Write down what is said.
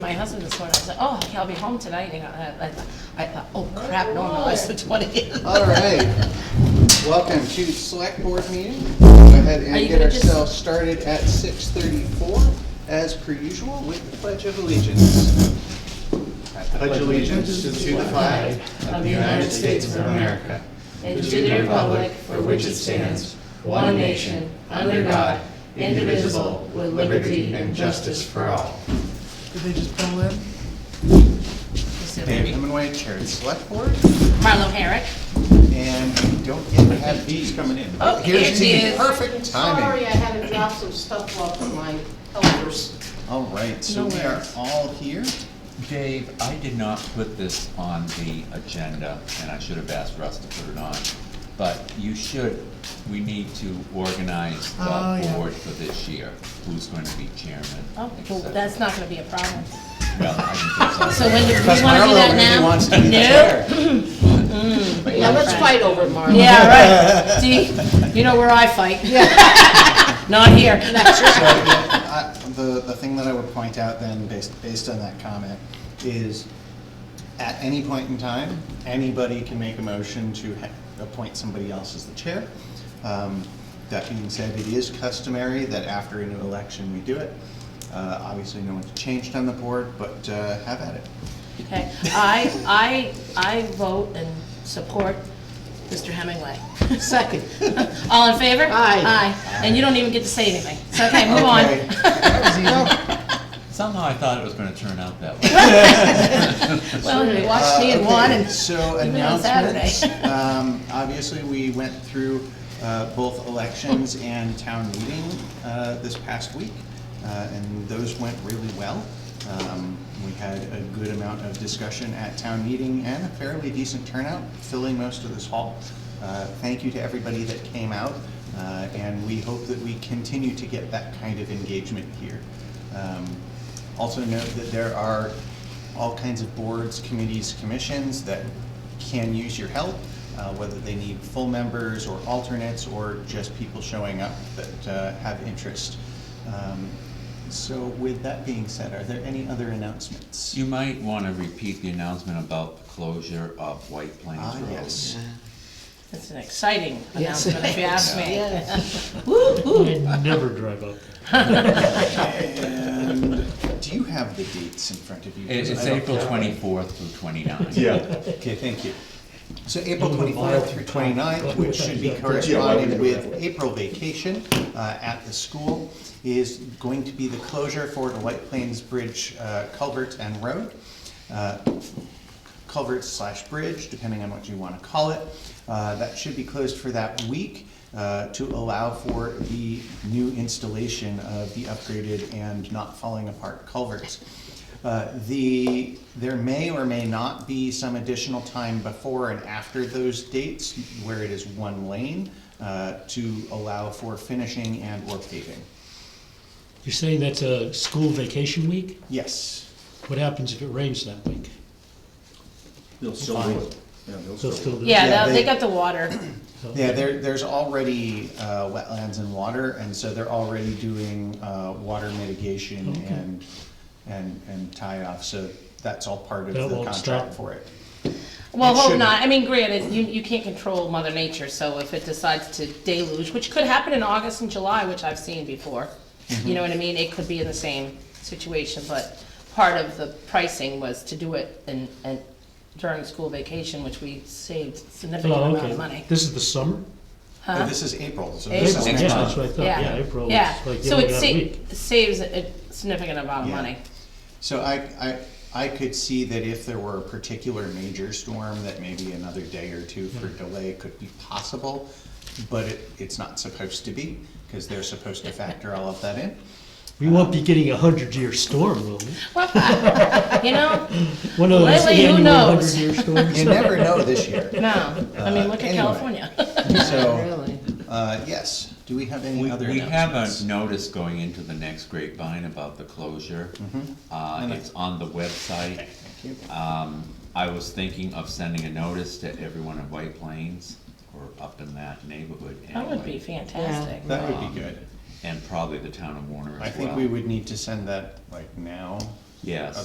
my husband this morning, I was like, oh, yeah, I'll be home tonight, and I, I, I thought, oh crap, no, no, it's the twentieth. All right, welcome to the select board meeting. Go ahead Are you and get gonna just- ourselves started at six thirty-four, as per usual, with the pledge of allegiance. I pledge allegiance to the flag Of the United States of America, and to the republic for which it stands, one nation, under God, indivisible, with liberty and justice for all. Did they just pull in? Dave Hemingway, Chair of the Select Board, Marlo Herrick. and we don't yet have these coming in. Oh, here Here's it the is. Perfect Sorry, timing. I had to drop some stuff off for my helpers. All right, so No we are worries. all here. Dave, I did not put this on the agenda, and I should have asked Russ to put it on, but you should, we need to organize Oh, the yeah. board for this year, who's going to be chairman, Oh, et well, cetera. that's not gonna be a problem. Well, I can fix So when, do we Because wanna do Marlo that really now? wants to be the No. chair. Yeah, let's fight over it, Marla. Yeah, right. See, you know where I fight. Not here. So, yeah, I- The, the thing that I would point out then, based, based on that comment, is at any point in time, anybody can make a motion to ha- appoint somebody else as the chair. Um, That being said, it is customary that after a new election, we do it. Uh, Obviously, no one's changed on the board, but uh, have at it. Okay, I, I, I vote and support Mr. Hemingway. Second. All in favor? Aye. Aye, and you don't even get to say anything. So, okay, move on. Okay. it. Somehow I thought it was gonna turn out that way. Well, you watched me and one, and Uh, So even on announcements, Saturday. um, obviously, we went through uh, both elections and town meeting uh, this past week, uh, and those went really well. Um, We had a good amount of discussion at town meeting and a fairly decent turnout, filling most of this hall. Uh, Thank you to everybody that came out, uh, and we hope that we continue to get that kind of engagement here. Um, also note that there are all kinds of boards, committees, commissions that can use your help, uh, whether they need full members or alternates or just people showing up that uh, have interest. Um, So with that being said, are there any other announcements? You might wanna repeat the announcement about the closure of White Plains Ah, Road. yes. it's an exciting Yes. announcement, if you ask me. Yes. I never drive up there. And do you have the dates in front of you? It- It's I don't- April twenty-fourth through twenty-ninth. Okay, thank you. So April Little twenty-five mile. through 29th, which should be Yeah. corresponding with April vacation uh, at the school, is going to be the closure for the White Plains Bridge uh, culvert and road. uh, Culvert slash bridge, depending on what you want to call it. Uh, That should be closed for that week uh, to allow for the new installation of the upgraded and not falling apart culverts. Uh, The, there may or may not be some additional time before and after those dates where it is one lane uh, to allow for finishing and or paving. You're saying that's a school vacation week? Yes. What happens if it rains that week? They'll still Fine. do it. Yeah, they'll They'll still do still it. do it? Yeah, Yeah, they- they they- got the water. Yeah, there, there's already uh, wetlands and water, and so they're already doing uh, water mitigation Okay. and, and, and tie-off, so that's all part of That the won't contract stop. for it. Well, It hope shouldn't. not. I mean, granted, you, you can't control Mother Nature, so if it decides to deluge, which could happen in August and July, which I've seen before, Mm-hmm. you know what I mean? It could be in the same situation, but part of the pricing was to do it in, in, during school vacation, which we saved significant Oh, amount of okay. money. This is the summer? But This is April, so this April. is Yeah, next that's month. what I thought, uh, yeah, April, Yeah. it's like you So only it got sa- a week. saves a significant amount of Yeah. money. So I, I, I could see that if there were a particular major storm, that maybe another day or two for delay could be possible, but it, it's not supposed to be, because they're supposed to factor all of that in. We won't be getting a hundred-year storm, will we? Well, you know, One of those Lately, who annual knows? hundred-year storms? You never know this year. no. I mean, Uh, look at anyway. California. So, uh, yes, do we have any We, other we have announcements? a notice going into the next grapevine about the closure. Uh, Mm-hmm. And I- it's on the website. you. Um, I was thinking of sending a notice to everyone in White Plains or up in that neighborhood That would be anyway, fantastic. That would be good. And probably the town of Warner as well. I think we would need to send that like now. Yes.